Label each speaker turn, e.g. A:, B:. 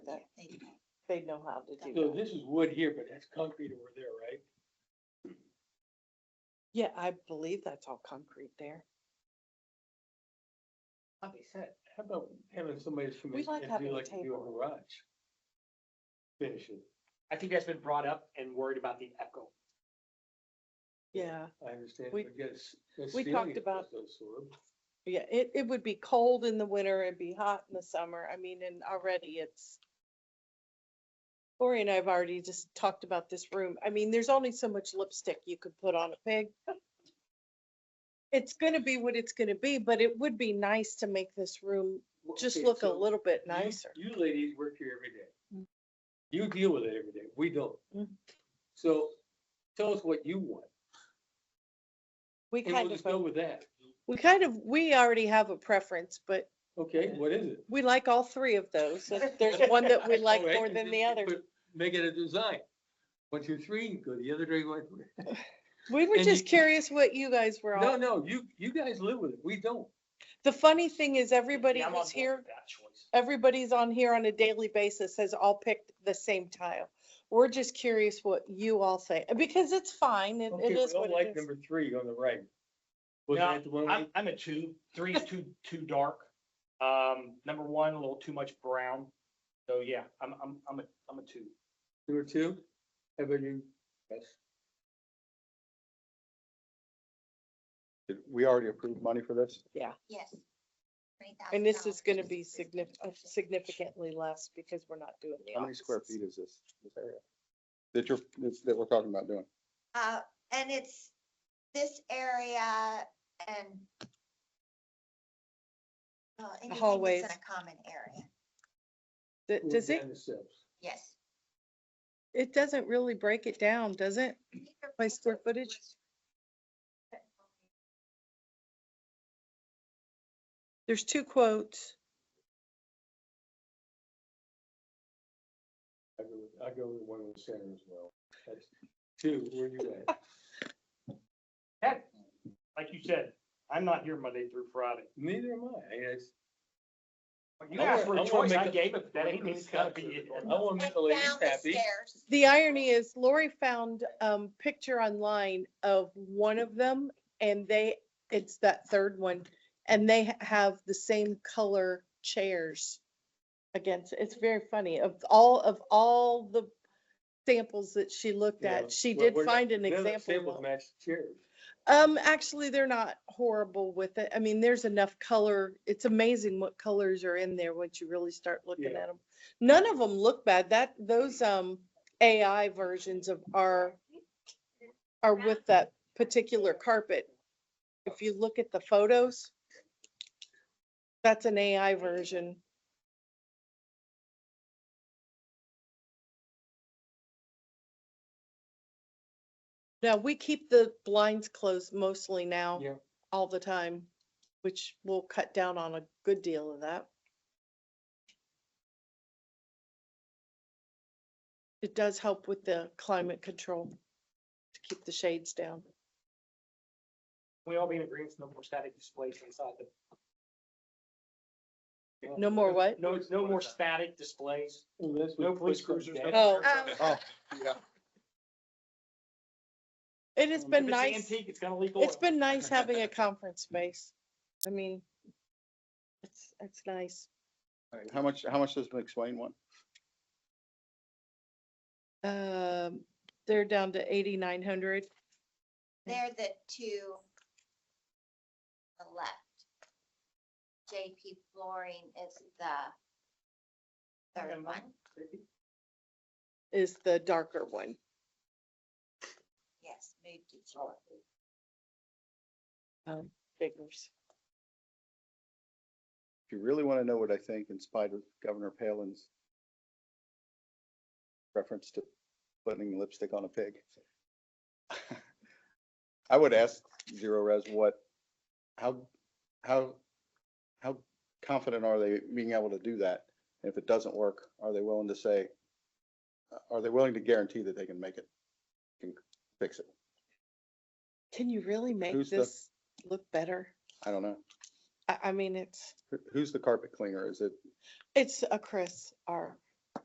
A: they know how to
B: So
A: do that.
B: this is wood here, but that's concrete over there, right?
A: Yeah, I believe that's all concrete there.
B: Okay, so. How about having somebody that's from.
A: We like
B: if you
A: having a
B: like to do a
A: table.
B: Garage. Finish it,
C: I think that's been brought up and worried about the echo.
A: Yeah,
B: I understand,
A: We-
B: but yes. the
A: we
B: ceiling
A: talked
B: is
A: about-
B: also absorbed.
A: yeah, it, it would be cold in the winter, it'd be hot in the summer. I mean, and already it's. Lori and I have already just talked about this room. I mean, there's only so much lipstick you could put on a pig. It's gonna be what it's gonna be, but it would be nice to make this room
B: Well,
A: just
B: okay,
A: look a
B: so
A: little bit
B: you-
A: nicer.
B: You ladies work here every day.
A: Mm.
B: You deal with it every day, we don't.
A: Mm.
B: So tell us what you want,
A: We
B: and we'll
A: kind
B: just
A: of,
B: go
A: a-
B: with that,
A: we kind of, we already have a preference, but
B: okay, what is it?
A: we like all three of those. so if There's one that we like
B: Alright,
A: more
B: and
A: than
B: then
A: the
B: you
A: other.
B: put- Make it a design, one, two, three, go the other way, one, three.
A: We were
B: and
A: just
B: you-
A: curious what you guys were
B: No,
A: on.
B: no, you, you guys live with it. We don't.
A: The funny thing is everybody
C: Yeah, I'm on
A: who's
C: board
A: here,
C: with That choice.
A: everybody's on here on a daily basis has all picked the same tile. We're just curious what you all say, because it's fine. It
B: Okay,
A: it
B: we
A: is
B: don't
A: what
B: like
A: it is.
B: number three on the right. Was
C: No,
B: that the one?
C: I'm,
B: we-
C: I'm at two, three is too, too dark. Um, number one, a little too much brown. So yeah, I'm, I'm, I'm a, I'm a two.
B: Number two? How about you? Yes.
D: Did we already approved money for this?
E: Yes.
A: And this is going to
E: $3,000
A: be significant, significantly less because we're not doing the
D: How many square
A: offices.
D: feet is this, this area? That you're, that's- that we're talking about doing?
E: Uh, and it's this area and. uh, anything that's
A: hallways.
E: In a common area,
A: Th- Does it,
E: yes.
A: it doesn't really break it down, does it? By square footage? There's two quotes.
B: I go with, I go with one in the center as well. That's Two, where you at?
C: Heck, like you said, I'm not here Monday through Friday.
B: Neither am I. I guess.
C: You
B: I wanna-
C: asked
B: I
C: for a
B: wanna
C: choice,
B: make
C: I
B: a-
C: gave it, that
B: I wanna
C: anything's
B: make a
C: gotta
B: stop
C: be
B: to
C: it.
B: it. I want to make the ladies
E: Down the
B: happy.
E: stairs.
A: The irony is Lori found um picture online of one of them and they, it's that third one. And they ha- have the same color chairs against, it's very funny. Of all, of all the samples that she looked
B: Yeah,
A: at, she
B: what-
A: did
B: what-
A: find an
B: none of the
A: example.
B: Tables
A: one.
B: match the chairs.
A: Um, actually, they're not horrible with it. I mean, there's enough color. It's amazing what colors are in there once you really start looking
B: Yeah.
A: at them. None of them look bad. That, those, um, AI versions of are, are with that particular carpet. If you look at the photos, that's an AI version. Now, we keep the blinds closed mostly now.
B: Yeah.
A: All the time, which will cut down on a good deal of that. It does help with the climate control to keep the shades down.
C: We all be in agreement, no more static displays inside the
A: No more what?
C: No, no more static displays.
B: Unless we
C: No
B: put
C: police
B: some
C: cruisers, no-
B: damn-
A: Oh.
E: Um,
D: Oh, yeah.
A: It has
B: Um,
A: been
C: If it's
A: nice.
C: Antique, it's gonna leak oil.
A: It's been nice having a conference space. I mean, it's, it's nice.
D: Alright, How much, how much does McSwain want?
A: Um, they're down to eighty-nine hundred.
E: They're the two. on The left. JP flooring is the. Third
C: Okay.
E: one,
A: is the darker one.
E: yes, moved to floor.
A: um, Figures.
D: If you really want to know what I think, in spite of Governor Palin's reference to putting lipstick on a pig, I would ask Zero Res what, how, how, how confident are they being able to do that? And If it doesn't work, are they willing to say, are they willing to guarantee that they can make it, can fix it?
A: Can you really make
D: Who's the-
A: this look better?
D: I don't know.
A: I, I mean, it's,
D: Who- Who's the carpet cleaner? Is it
A: it's a Chris R.